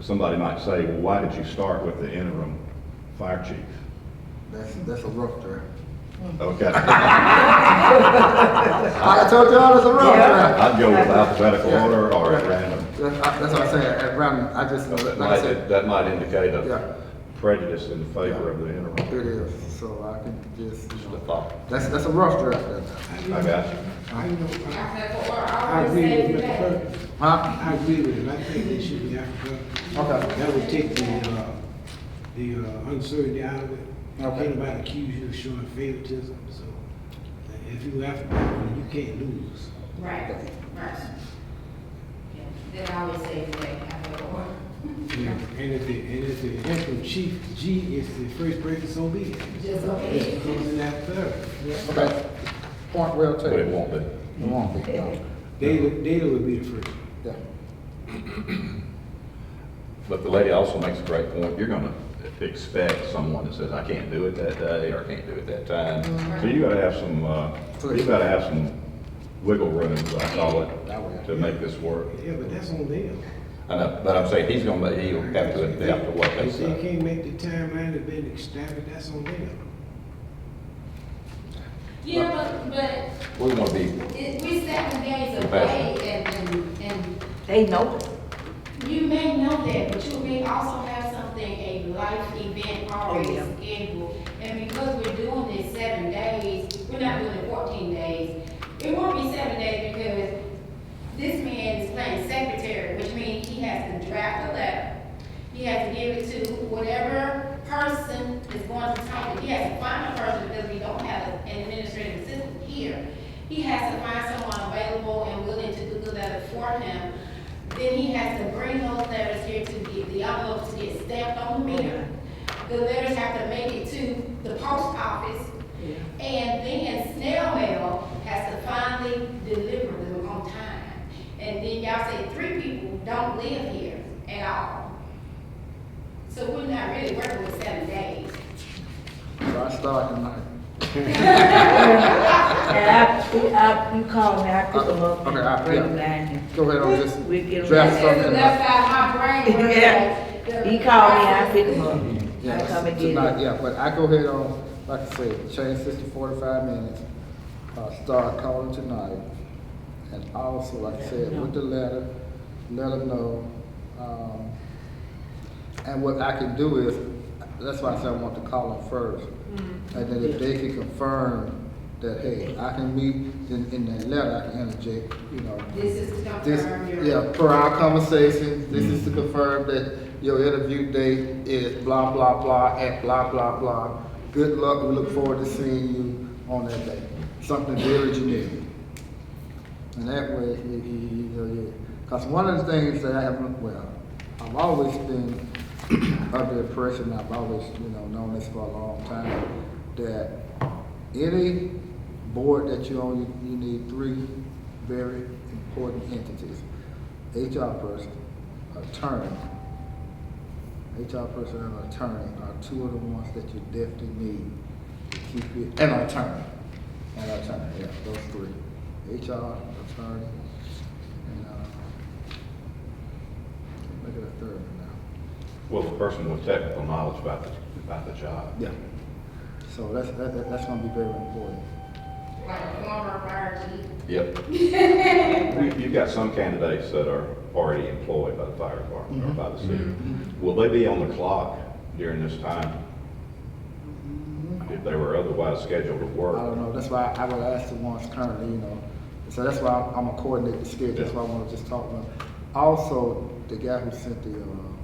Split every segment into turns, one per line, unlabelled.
Somebody might say, well, why did you start with the interim fire chief?
That's, that's a rough draft.
Okay,
Like I told y'all, that's a rough draft.
I'd go with alphabetical order or at random.
That's, I- that's what I'm saying, at random, I just,
That
like I
might,
said,
that might indicate
Yeah.
a prejudice in favor of the interim.
it is, so I can just, you
Just a
know,
thought.
that's, that's a rough draft.
I got you.
I know, I,
Alphabetical order, I
I
would
agree
say
with Mr.
that.
Perkins.
Huh?
I agree with him, I think they should be alphabetical.
Okay.
That would take the, uh, the uh, uncertainty out of it.
Okay.
Can't nobody accuse you of showing favoritism, so if you alphabetical, you can't lose.
Right, right. Yeah, Then I would say that alphabetical order.
And if the, and if the interim chief G is the first person, so be it.
Just okay.
It comes in after third.
Okay, point well
But it
taken.
won't be.
It won't be, no.
Data, data would be the first.
Yeah.
But the lady also makes a great point. You're gonna expect someone that says, I can't do it that day, or I can't do it that
Mm-hmm.
time. So you gotta have some, uh, you gotta have some wiggle room, as I call
That way.
it, to make this work.
Yeah, but that's on them.
I know, but I'm saying he's gonna, make- he'll have to adapt to what they
If they
say.
can't make the timeline, if they established, that's on them.
Yeah, but, but
We wanna be,
it, we seven days away
Compassion.
and, and, and
They know it.
you may know that, but you may also have something, a life event already
Yeah.
scheduled. And because we're doing this seven days, we're not doing it fourteen days. It won't be seven days because this man is playing secretary, which means he has to draft a letter. He has to give it to whatever person is going to talk to. He has to find a person because we don't have an administrative assistant here. He has to find someone available and willing to do the letter for him. Then he has to bring those letters here to get the envelopes to get stamped on the mirror. The letters have to make it to the post office. And then snail mail has to finally deliver them on time. And then y'all say three people don't live here at all. So we're not really working with seven days.
So I start tonight.
And I, we- I, you call me, I pick them up.
Okay, I-
Bring
yeah.
them down here.
Go ahead on this.
We get 'em
draft
back.
something
There's
tonight.
enough out of my brain. where
Yeah.
the-
He called me, I pick them up. I
Yes,
come and get
tonight,
them.
yeah, but I go ahead on, like I said, change this to forty-five minutes, uh, start calling tonight. And also, like I said, with the letter, let them know, um, and what I can do is, that's why I said I want to call them first.
Mm-hmm.
And then if they can confirm that, hey, I can meet, then in that letter, I can interject, you know,
This is to
this,
confirm your.
yeah, per our conversation, this is to confirm that your interview date is blah, blah, blah, at blah, blah, blah. Good luck, we look forward to seeing you on that day. Something very generic. And that way, you, you, you know, you, cause one of the things that I have, well, I've always been of the impression, I've always, you know, known this for a long time, that any board that you own, you, you need three very important entities. HR person, attorney, HR person and attorney are two of the ones that you definitely need to keep it, and attorney, and attorney, yeah, those three. HR, attorney, and, uh, look at a third one now.
well, the person with technical knowledge about the, about the job.
Yeah. So that's, that, that- that's gonna be very important.
Like former fire chief.
Yep. You- You've got some candidates that are already employed by the fire department or by the city. Will they be on the clock during this time? If they were otherwise scheduled to
I
work?
don't know, that's why I would ask the ones currently, you know, so that's why I'm gonna coordinate the schedule, that's why I wanna just talk about. Also, the guy who sent the, um,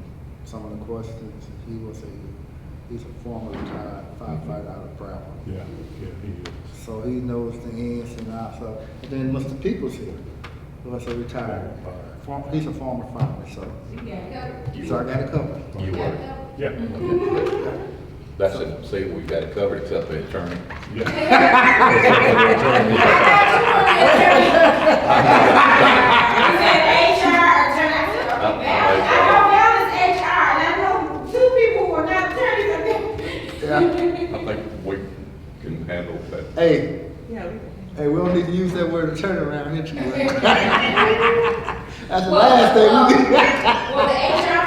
some of the questions, he was a, he's a former retired firefighter out of Brown.
Yeah, yeah, he is.
So he knows the ins and outs of, and then Mr. Peoples here, was a retired, form- he's a former fireman, so,
You got it covered.
so I got a couple.
You
You got it
were.
covered.
Yeah,
That's it. See, we've got it covered except the attorney.
yeah.
You said HR attorney, I said,
Uh,
okay, Val, I know Val is HR, and I know two people who are not attorneys, I think.
Yeah.
I think we can handle that.
Hey,
Yeah, we-
Hey, we don't need to use that word attorney around here too much. That's the
Well,
last thing we
uh,